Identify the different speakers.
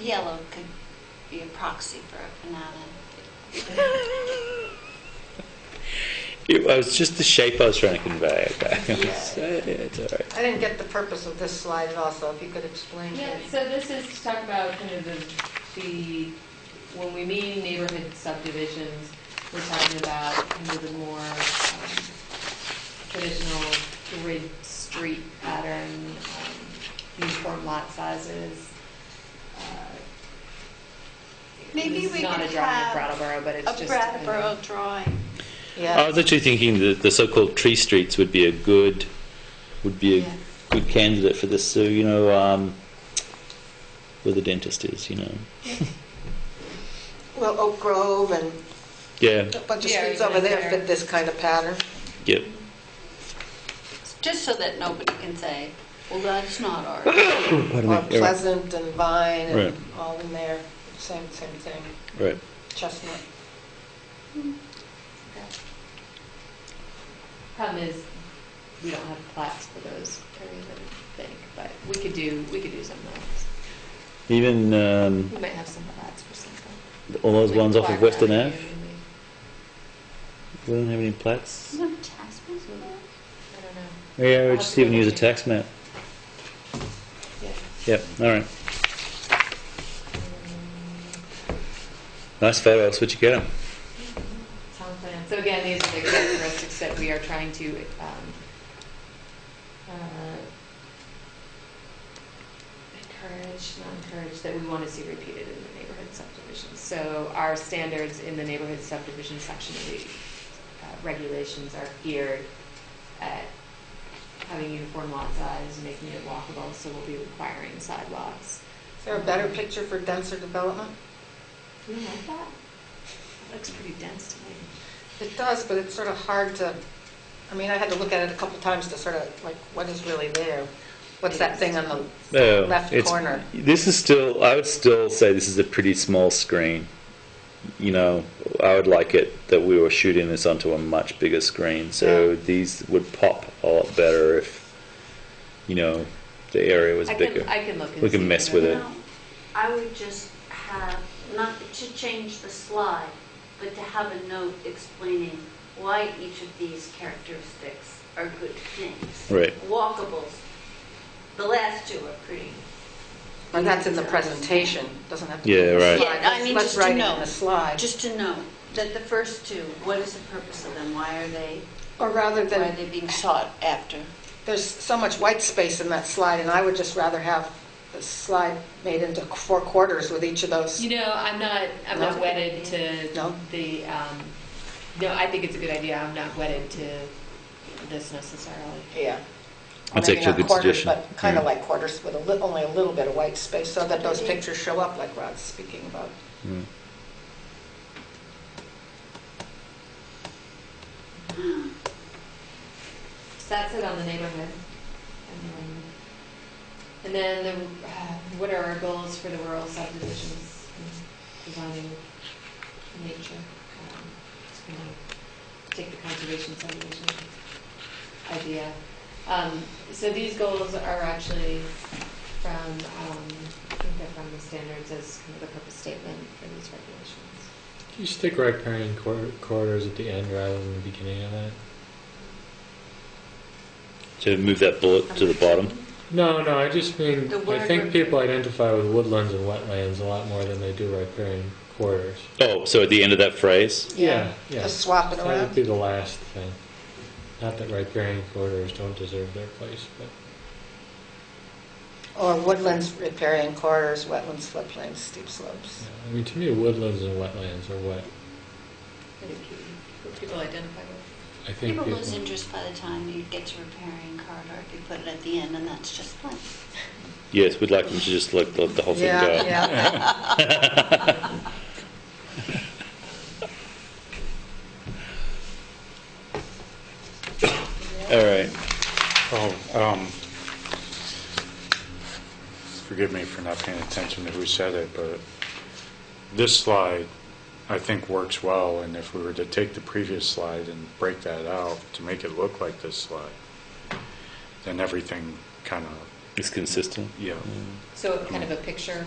Speaker 1: yellow could be a proxy for a banana.
Speaker 2: It was just the shape I was trying to convey, okay?
Speaker 3: Yeah.
Speaker 2: It's all right.
Speaker 3: I didn't get the purpose of this slide at all, so if you could explain to me.
Speaker 4: Yeah, so this is to talk about kind of the, the, when we mean neighborhood subdivisions, we're talking about kind of the more um, traditional grid street pattern, um, uniform lot sizes. Uh,
Speaker 1: Maybe
Speaker 4: it's
Speaker 1: we
Speaker 4: not
Speaker 1: could
Speaker 4: a drawing of
Speaker 1: have
Speaker 4: Brattleboro, but it's
Speaker 1: A
Speaker 4: just.
Speaker 1: Brattleboro drawing.
Speaker 2: I
Speaker 3: Yeah,
Speaker 2: was actually thinking that the so-called tree streets would be a good, would be a
Speaker 4: Yeah.
Speaker 2: good candidate for this, so, you know, um, where the dentist is, you know.
Speaker 3: well, Oak Grove and
Speaker 2: Yeah,
Speaker 3: a bunch of
Speaker 4: Yeah,
Speaker 3: streets
Speaker 4: even
Speaker 3: over there
Speaker 4: there.
Speaker 3: fit this kind of pattern.
Speaker 2: yep.
Speaker 1: Just so that nobody can say, well, that's not ours.
Speaker 2: Pardon
Speaker 3: Or
Speaker 2: me. Yeah, right.
Speaker 3: Pleasant and Vine and
Speaker 2: Right.
Speaker 3: all in there, same, same thing,
Speaker 2: Right.
Speaker 3: Chestnut.
Speaker 4: Problem is, we don't have plats for those areas, I don't think, but we could do, we could do something else.
Speaker 2: Even, um,
Speaker 4: We might have some plats for something.
Speaker 2: all those
Speaker 4: Like
Speaker 2: ones off
Speaker 4: Black
Speaker 2: of Western
Speaker 4: Rock area,
Speaker 2: Ave,
Speaker 4: maybe.
Speaker 2: we don't have any plats.
Speaker 1: Isn't it Tasman's with that?
Speaker 4: I don't know.
Speaker 2: Yeah, we
Speaker 4: I'll
Speaker 2: just
Speaker 4: have to
Speaker 2: even
Speaker 4: go
Speaker 2: use a
Speaker 4: look at
Speaker 2: tax map.
Speaker 4: Yeah.
Speaker 2: Yep, all right. Nice photos, where'd you get 'em?
Speaker 4: Sound plan. So again, these are the characteristics that we are trying to, um, uh, encourage, not encourage, that we want to see repeated in the neighborhood subdivisions. So our standards in the neighborhood subdivision section of the uh, regulations are geared at having uniform lot size, making it walkable, so we'll be requiring sidewalks.
Speaker 3: Is there a better picture for denser development?
Speaker 4: You don't like that? That looks pretty dense to me.
Speaker 3: It does, but it's sort of hard to, I mean, I had to look at it a couple times to sort of, like, what is really there? What's that thing on the
Speaker 2: Oh,
Speaker 3: left
Speaker 2: it's-
Speaker 3: corner?
Speaker 2: This is still, I would still say this is a pretty small screen. You know, I would like it that we were shooting this onto a much bigger screen, so
Speaker 3: Yeah.
Speaker 2: these would pop a lot better if, you know, the area was
Speaker 4: I
Speaker 2: bigger.
Speaker 4: can, I can look and
Speaker 2: We can
Speaker 4: see
Speaker 2: mess
Speaker 4: whether-
Speaker 2: with it.
Speaker 5: No, I would just have, not to change the slide, but to have a note explaining why each of these characteristics are good things.
Speaker 2: Right.
Speaker 5: Walkables, the last two are pretty.
Speaker 3: And that's in the presentation, doesn't have to be
Speaker 2: Yeah,
Speaker 3: in the
Speaker 2: right.
Speaker 3: slide.
Speaker 1: Yeah, I mean,
Speaker 3: Let's-
Speaker 1: just
Speaker 3: Let's
Speaker 1: to
Speaker 3: write it in
Speaker 1: know.
Speaker 3: the slide.
Speaker 1: Just to know that the first two, what is the purpose of them? Why are they,
Speaker 3: Or rather
Speaker 1: why are
Speaker 3: than,
Speaker 1: they being sought after?
Speaker 3: there's so much white space in that slide, and I would just rather have the slide made into four quarters with each of those.
Speaker 4: You know, I'm not, I'm not
Speaker 3: No?
Speaker 4: wedded to
Speaker 3: No?
Speaker 4: the, um, no, I think it's a good idea. I'm not wedded to this necessarily.
Speaker 3: Yeah.
Speaker 2: That's
Speaker 3: Maybe
Speaker 2: actually a
Speaker 3: not
Speaker 2: good
Speaker 3: quarters,
Speaker 2: suggestion.
Speaker 3: But kind of
Speaker 2: Yeah.
Speaker 3: like quarters with a li- only a little bit of white space, so that those
Speaker 5: Maybe.
Speaker 3: pictures show up like Rod's speaking about.
Speaker 2: Mm.
Speaker 4: So that's it on the neighborhood. Um, And then the, uh, what are our goals for the rural subdivisions, and designing nature? Um, Just gonna take the conservation subdivision idea. Um, So these goals are actually from, um, I think they're from the standards as kind of the purpose statement for these regulations.
Speaker 6: You stick riparian cor- corridors at the end rather than the beginning of that.
Speaker 2: To move that bullet to the bottom.
Speaker 6: No, no, I just mean
Speaker 1: The
Speaker 6: I
Speaker 1: word
Speaker 6: think
Speaker 1: rip-
Speaker 6: people identify with woodlands and wetlands a lot more than they do riparian corridors.
Speaker 2: Oh, so at the end of that phrase?
Speaker 6: Yeah, yeah.
Speaker 3: Just swap it
Speaker 6: That would
Speaker 3: around.
Speaker 6: be the last thing. Not that riparian corridors don't deserve their place, but
Speaker 3: Or woodlands, riparian corridors, wetlands, floodplains, steep slopes.
Speaker 6: yeah. I mean, to me, woodlands and wetlands are what
Speaker 4: I think you- what people identify with.
Speaker 6: I think
Speaker 1: People
Speaker 6: people.
Speaker 1: lose interest by the time you get to repairing corridor if you put it at the end, and that's just plain.
Speaker 2: Yes, we'd like them to just let, let the whole thing
Speaker 3: Yeah,
Speaker 2: go.
Speaker 3: yeah.
Speaker 2: All right.
Speaker 7: Oh, um, forgive me for not paying attention to who said it, but this slide, I think, works well, and if we were to take the previous slide and break that out to make it look like this slide, then everything kind of,
Speaker 2: It's consistent.
Speaker 7: yeah.
Speaker 4: So kind of a picture